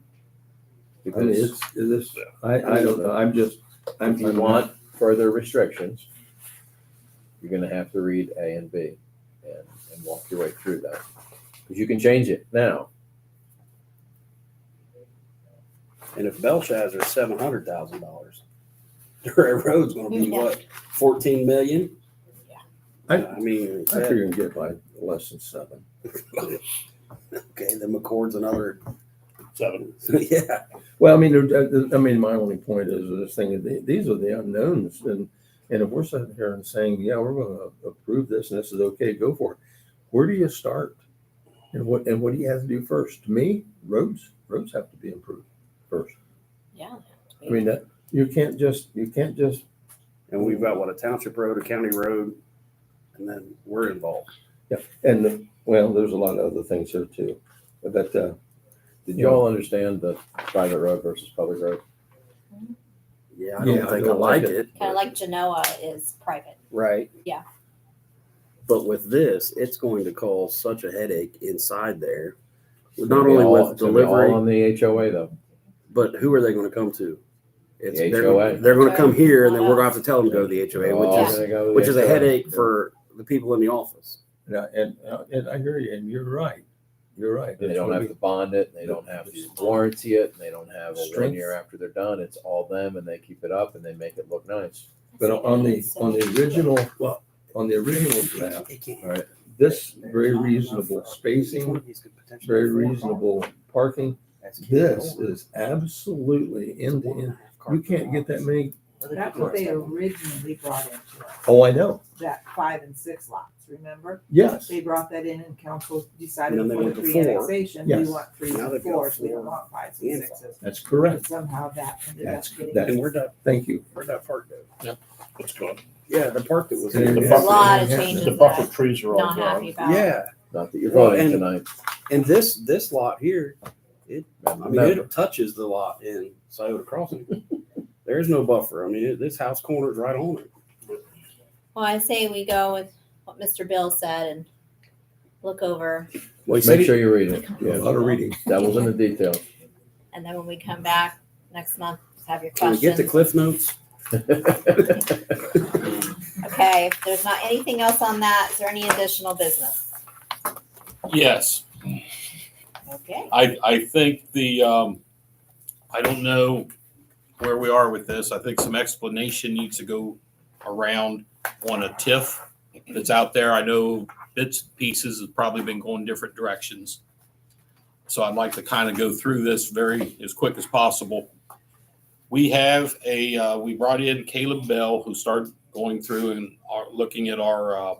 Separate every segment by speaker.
Speaker 1: I mean,
Speaker 2: Because
Speaker 1: it's, it's, I, I don't know, I'm just, I'm.
Speaker 2: if you
Speaker 1: I'm-
Speaker 2: want further restrictions, you're gonna have to read A and B and, and walk your way through that. Because you can change it now.
Speaker 3: And if Belshazzar's seven hundred thousand dollars, Durant Road's gonna be
Speaker 4: Yeah.
Speaker 3: what, fourteen million?
Speaker 4: Yeah.
Speaker 1: I-
Speaker 3: I mean,
Speaker 1: I figure you can get by less than seven.
Speaker 3: okay, then McCord's another,
Speaker 5: seven.
Speaker 3: so yeah,
Speaker 1: Well, I mean, uh, uh, I mean, my only point is this thing, is the- these are the unknowns and, and if we're sitting here and saying, yeah, we're gonna approve this and this is okay, go for it. Where do you start? And what, and what do you have to do first? To me, roads, roads have to be improved first.
Speaker 4: Yeah.
Speaker 1: I mean, that, you can't just, you can't just,
Speaker 3: and we've got what, a township road, a county road, and then we're involved.
Speaker 1: and, well, there's a lot of other things here too. But, uh,
Speaker 2: Did you all understand the private road versus public road?
Speaker 3: Yeah, I
Speaker 1: Yeah,
Speaker 3: don't think I like it,
Speaker 4: Kind of like Genoa is private.
Speaker 3: right?
Speaker 4: Yeah.
Speaker 3: But with this, it's going to cause such a headache inside there,
Speaker 2: It's
Speaker 3: not
Speaker 2: gonna be
Speaker 3: only
Speaker 2: all-
Speaker 3: with
Speaker 2: it's gonna be all
Speaker 3: delivery.
Speaker 2: On the HOA though.
Speaker 3: But who are they going to come to? It's,
Speaker 2: The
Speaker 3: they're,
Speaker 2: HOA.
Speaker 3: They're going to come here, and then we're going to have to tell them to go to the HOA,
Speaker 2: All
Speaker 4: Oh, Yeah.
Speaker 3: which is
Speaker 2: gonna go to the
Speaker 3: which is a
Speaker 2: HOA.
Speaker 3: headache for the people in the office.
Speaker 1: and, I- and, uh, and I hear you, and you're right. You're right.
Speaker 2: And They
Speaker 1: It's
Speaker 2: don't
Speaker 1: gonna
Speaker 2: have to
Speaker 1: be-
Speaker 2: bond it, they don't have to warranty it, and they don't have a one
Speaker 1: Strength.
Speaker 2: year after they're done. It's all them and they keep it up and they make it look nice.
Speaker 1: But on the, on the original, well, on the original draft, this very reasonable spacing, very reasonable parking. This is absolutely end to end. You can't get that many.
Speaker 6: That's what they originally brought into us,
Speaker 1: Oh, I know.
Speaker 6: that five and six lots, remember?
Speaker 1: Yes.
Speaker 6: They brought that in and council decided
Speaker 3: And then they
Speaker 6: for
Speaker 3: went
Speaker 6: the
Speaker 3: to
Speaker 6: three
Speaker 3: four.
Speaker 6: annexation, we
Speaker 1: Yes.
Speaker 6: want three
Speaker 3: Now
Speaker 6: and
Speaker 3: they've got
Speaker 6: fours, we don't
Speaker 3: four
Speaker 6: want fives
Speaker 3: and
Speaker 6: and sixes.
Speaker 1: That's
Speaker 6: But
Speaker 1: correct.
Speaker 6: somehow that ended up
Speaker 1: That's-
Speaker 6: getting.
Speaker 1: that's-
Speaker 3: And where'd that
Speaker 1: Thank you.
Speaker 3: where'd that park go?
Speaker 5: What's gone?
Speaker 3: Yeah, the park that was
Speaker 1: Yeah.
Speaker 5: The
Speaker 3: there.
Speaker 4: A lot of
Speaker 1: Yeah.
Speaker 5: The
Speaker 4: changes
Speaker 5: buffer
Speaker 4: that
Speaker 5: trees are
Speaker 4: I'm
Speaker 5: all
Speaker 4: not
Speaker 5: gone.
Speaker 4: happy about.
Speaker 3: Yeah,
Speaker 2: Not that you're
Speaker 3: Well,
Speaker 2: voting
Speaker 3: and-
Speaker 2: tonight.
Speaker 3: and this this lot here, I mean,
Speaker 2: Remember.
Speaker 3: it touches the lot in Scioto Crossing. There's no buffer. I mean, it, this house corner's right on it.
Speaker 4: Well, I say we go with what Mr. Bill said and look over,
Speaker 3: Well,
Speaker 2: Make sure you read it.
Speaker 1: A lot of reading.
Speaker 2: Devil's in the detail.
Speaker 4: and then when we come back next month, just have your
Speaker 3: Can we get the
Speaker 4: questions.
Speaker 3: cliff notes?
Speaker 4: Okay, if there's not anything else on that, is there any additional business?
Speaker 5: Yes,
Speaker 4: Okay.
Speaker 5: I, I think the, um, I don't know where we are with this. I think some explanation needs to go around on a TIF that's out there. I know bits and pieces have probably been going different directions. So I'd like to kind of go through this very, as quick as possible. We have a, uh, we brought in Caleb Bell, who started going through and are looking at our, uh,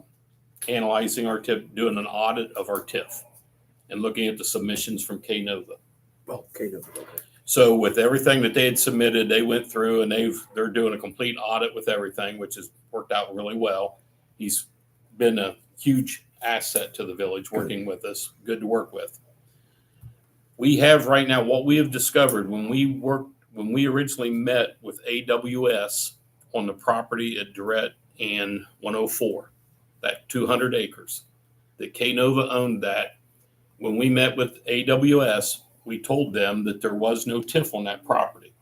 Speaker 5: analyzing our TIF, doing an audit of our TIF and looking at the submissions from KNOVA.
Speaker 3: Well, okay, no, okay.
Speaker 5: So with everything that they had submitted, they went through and they've, they're doing a complete audit with everything, which has worked out really well. He's been a huge asset to the village, working with us, good to work with. We have right now, what we have discovered when we worked, when we originally met with AWS on the property at Durrett and one oh four, that two hundred acres, that Knova owned that. When we met with AWS, we told them that there was no TIF on that property.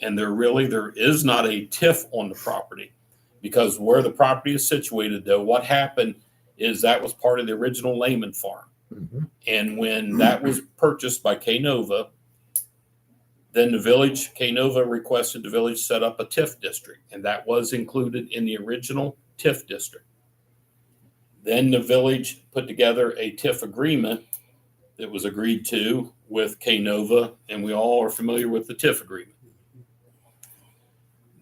Speaker 5: And there really, there is not a TIF on the property because where the property is situated though, what happened is that was part of the original Lehman farm.
Speaker 2: Mm-hmm.
Speaker 1: Mhm.
Speaker 5: And when that was purchased by Knova, then the village, Knova requested the village set up a TIF district and that was included in the original TIF district. Then the village put together a TIF agreement that was agreed to with Knova, and we all are familiar with the TIF agreement.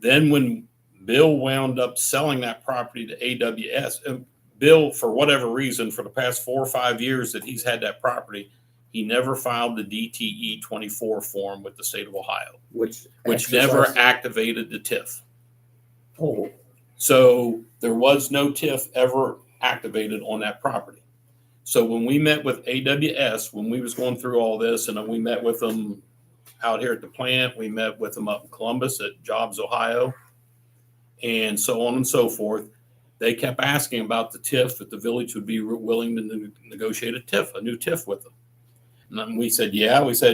Speaker 5: Then when Bill wound up selling that property to AWS, and Bill, for whatever reason, for the past four or five years that he's had that property, he never filed the DTE twenty-four form with the state of Ohio,
Speaker 3: Which
Speaker 5: which never
Speaker 3: exercise-
Speaker 5: activated the TIF.
Speaker 1: Oh,
Speaker 5: So there was no TIF ever activated on that property. So when we met with AWS, when we was going through all this, and then we met with them out here at the plant, we met with them up in Columbus at Jobs, Ohio, and so on and so forth. They kept asking about the TIF, that the village would be willing to ne- negotiate a TIF, a new TIF with them. And then we said, yeah, we said,